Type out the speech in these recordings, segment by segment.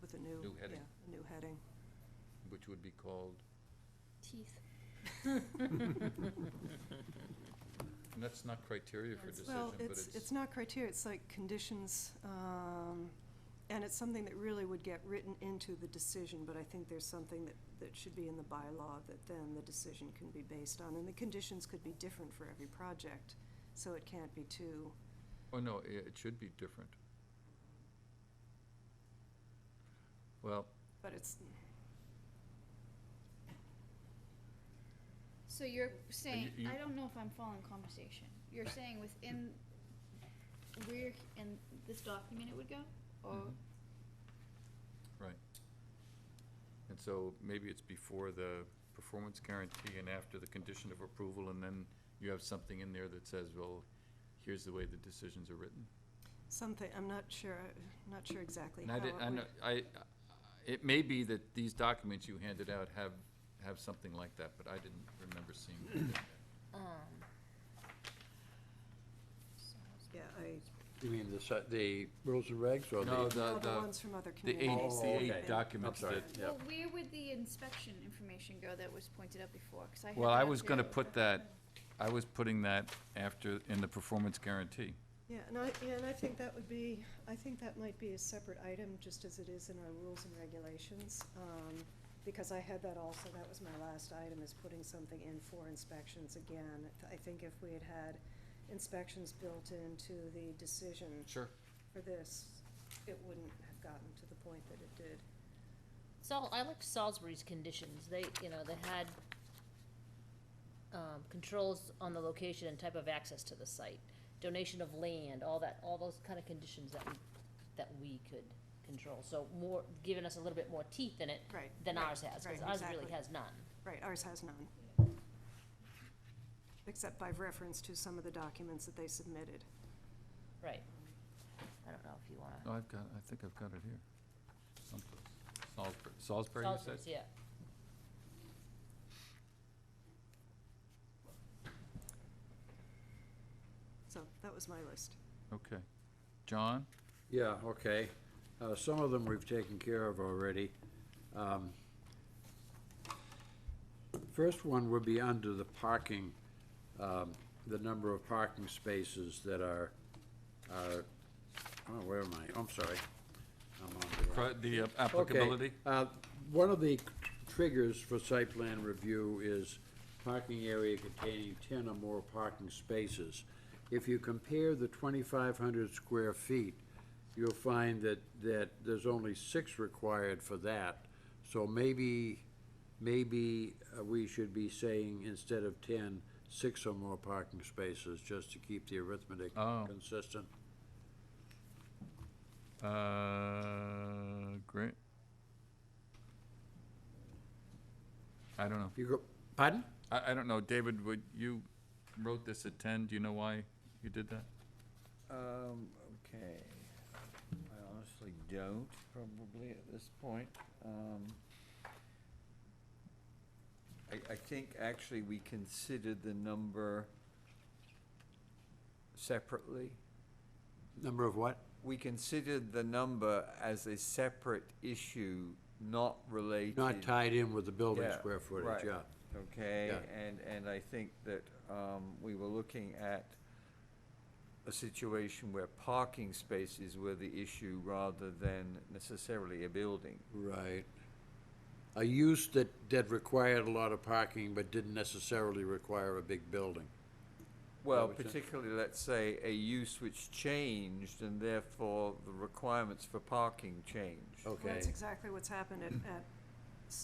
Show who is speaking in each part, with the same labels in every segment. Speaker 1: with a new.
Speaker 2: New heading.
Speaker 1: yeah, A new heading.
Speaker 2: which would be called,
Speaker 3: Teeth.
Speaker 2: and that's not criteria for
Speaker 3: That's-
Speaker 2: decision,
Speaker 1: Well,
Speaker 2: but
Speaker 1: it's,
Speaker 2: it's.
Speaker 1: it's not criteria, it's like conditions, um, and it's something that really would get written into the decision, but I think there's something that, that should be in the bylaw that then the decision can be based on, and the conditions could be different for every project, so it can't be too,
Speaker 2: Oh, no, i- it should be different. Well,
Speaker 1: but it's,
Speaker 3: So you're saying,
Speaker 2: you-
Speaker 3: I don't know if I'm following conversation. You're saying within where c- in this document it would go? Or
Speaker 2: Mhm. right. And so maybe it's before the performance guarantee and after the condition of approval, and then you have something in there that says, well, here's the way the decisions are written.
Speaker 1: Something, I'm not sure, not sure exactly
Speaker 2: And
Speaker 1: how
Speaker 2: I
Speaker 1: it
Speaker 2: did I,
Speaker 1: would-
Speaker 2: know, I, it may be that these documents you handed out have, have something like that, but I didn't remember seeing that.
Speaker 4: Um,
Speaker 1: Yeah, I,
Speaker 5: You mean the, si- the rules and regs or the?
Speaker 2: No,
Speaker 1: all
Speaker 2: the,
Speaker 1: the
Speaker 2: the,
Speaker 1: ones from other
Speaker 2: the
Speaker 1: communities.
Speaker 2: eight,
Speaker 5: Oh,
Speaker 2: the
Speaker 5: okay.
Speaker 2: eight documents
Speaker 5: I'm sorry.
Speaker 2: that,
Speaker 5: Yeah.
Speaker 3: Well, where would the inspection information go that was pointed out before? 'Cause I had
Speaker 2: well, I
Speaker 3: that
Speaker 2: was gonna
Speaker 3: there.
Speaker 2: put that, I was putting that after, in the performance guarantee.
Speaker 1: Yeah, and I, yeah, and I think that would be, I think that might be a separate item, just as it is in our rules and regulations. um, Because I had that also, that was my last item, is putting something in for inspections again. I think if we had had inspections built into the decision
Speaker 2: Sure.
Speaker 1: for this, it wouldn't have gotten to the point that it did.
Speaker 4: Sal, I like Salisbury's conditions, they, you know, they had, um, controls on the location and type of access to the site, donation of land, all that, all those kind of conditions that we, that we could control, so more, giving us a little bit more teeth in it
Speaker 1: Right,
Speaker 4: than
Speaker 1: right,
Speaker 4: ours has, cause
Speaker 1: right,
Speaker 4: ours really
Speaker 1: exactly.
Speaker 4: has none.
Speaker 1: Right, ours has none. Except by reference to some of the documents that they submitted.
Speaker 4: Right. I don't know if you wanna.
Speaker 2: No, I've got, I think I've got it here. someplace. Salisbury, Salisbury, you said?
Speaker 4: Salisbury's, yeah.
Speaker 1: So that was my list.
Speaker 2: Okay. John?
Speaker 5: Yeah, okay. Uh, some of them we've taken care of already. Um, First one would be under the parking, um, the number of parking spaces that are, are, oh, where am I? I'm sorry. I'm on the
Speaker 2: Pro-
Speaker 5: wrong.
Speaker 2: The uh,
Speaker 5: Okay,
Speaker 2: applicability?
Speaker 5: uh, One of the triggers for site plan review is parking area containing ten or more parking spaces. If you compare the twenty-five hundred square feet, you'll find that, that there's only six required for that. So maybe, maybe uh, we should be saying instead of 10, six or more parking spaces, just to keep the arithmetic
Speaker 2: Oh.
Speaker 5: consistent.
Speaker 2: Uh, great. I don't know.
Speaker 5: You go, pardon?
Speaker 2: I, I don't know, David, would, you wrote this at ten, do you know why you did that?
Speaker 6: Um, okay. I honestly don't, probably at this point. Um, I, I think actually we considered the number separately.
Speaker 5: Number of what?
Speaker 6: We considered the number as a separate issue, not related.
Speaker 5: Not tied in with the building
Speaker 6: Yeah,
Speaker 5: square footage,
Speaker 6: right.
Speaker 5: yeah.
Speaker 6: Okay,
Speaker 5: Yeah.
Speaker 6: and, and I think that um, we were looking at a situation where parking spaces were the issue rather than necessarily a building.
Speaker 5: Right. A use that, that required a lot of parking but didn't necessarily require a big building.
Speaker 6: Well,
Speaker 5: would say-
Speaker 6: particularly, let's say, a use which changed and therefore the requirements for parking changed.
Speaker 1: Well,
Speaker 5: Okay,
Speaker 1: That's exactly what's happened at, at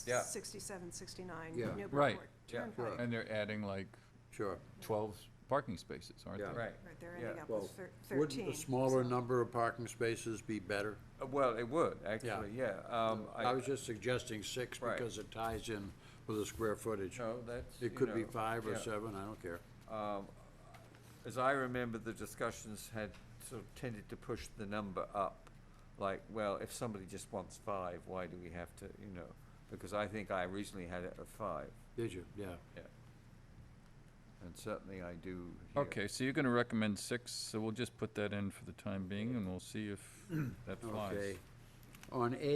Speaker 6: Yeah.
Speaker 1: sixty-seven, sixty-nine
Speaker 5: Yeah.
Speaker 2: Right.
Speaker 1: Newburyport
Speaker 6: Yeah.
Speaker 1: Turnpike.
Speaker 2: And they're adding like
Speaker 5: sure.
Speaker 2: twelve parking spaces, aren't
Speaker 5: Yeah.
Speaker 2: they?
Speaker 6: Right.
Speaker 1: Right, they're
Speaker 6: Yeah.
Speaker 1: ending up
Speaker 5: Well,
Speaker 1: with thir- thirteen.
Speaker 5: Wouldn't a smaller
Speaker 1: so-
Speaker 5: number of parking spaces be better?
Speaker 6: Uh, Well, it would, actually, yeah. Um,
Speaker 5: I was just suggesting six
Speaker 6: Right.
Speaker 5: because it ties in with the square footage.
Speaker 6: No, that's,
Speaker 5: It
Speaker 6: you
Speaker 5: could be
Speaker 6: know,
Speaker 5: five or
Speaker 6: yeah.
Speaker 5: seven, I don't care.
Speaker 6: um, as I remember, the discussions had sort of tended to push the number up. Like, well, if somebody just wants five, why do we have to, you know? Because I think I originally had it at five,
Speaker 5: Did you? Yeah.
Speaker 6: yeah. And certainly I do here.
Speaker 2: Okay, so you're gonna recommend six, so we'll just put that in for the time being, and we'll see if that flies.
Speaker 5: Okay. On A,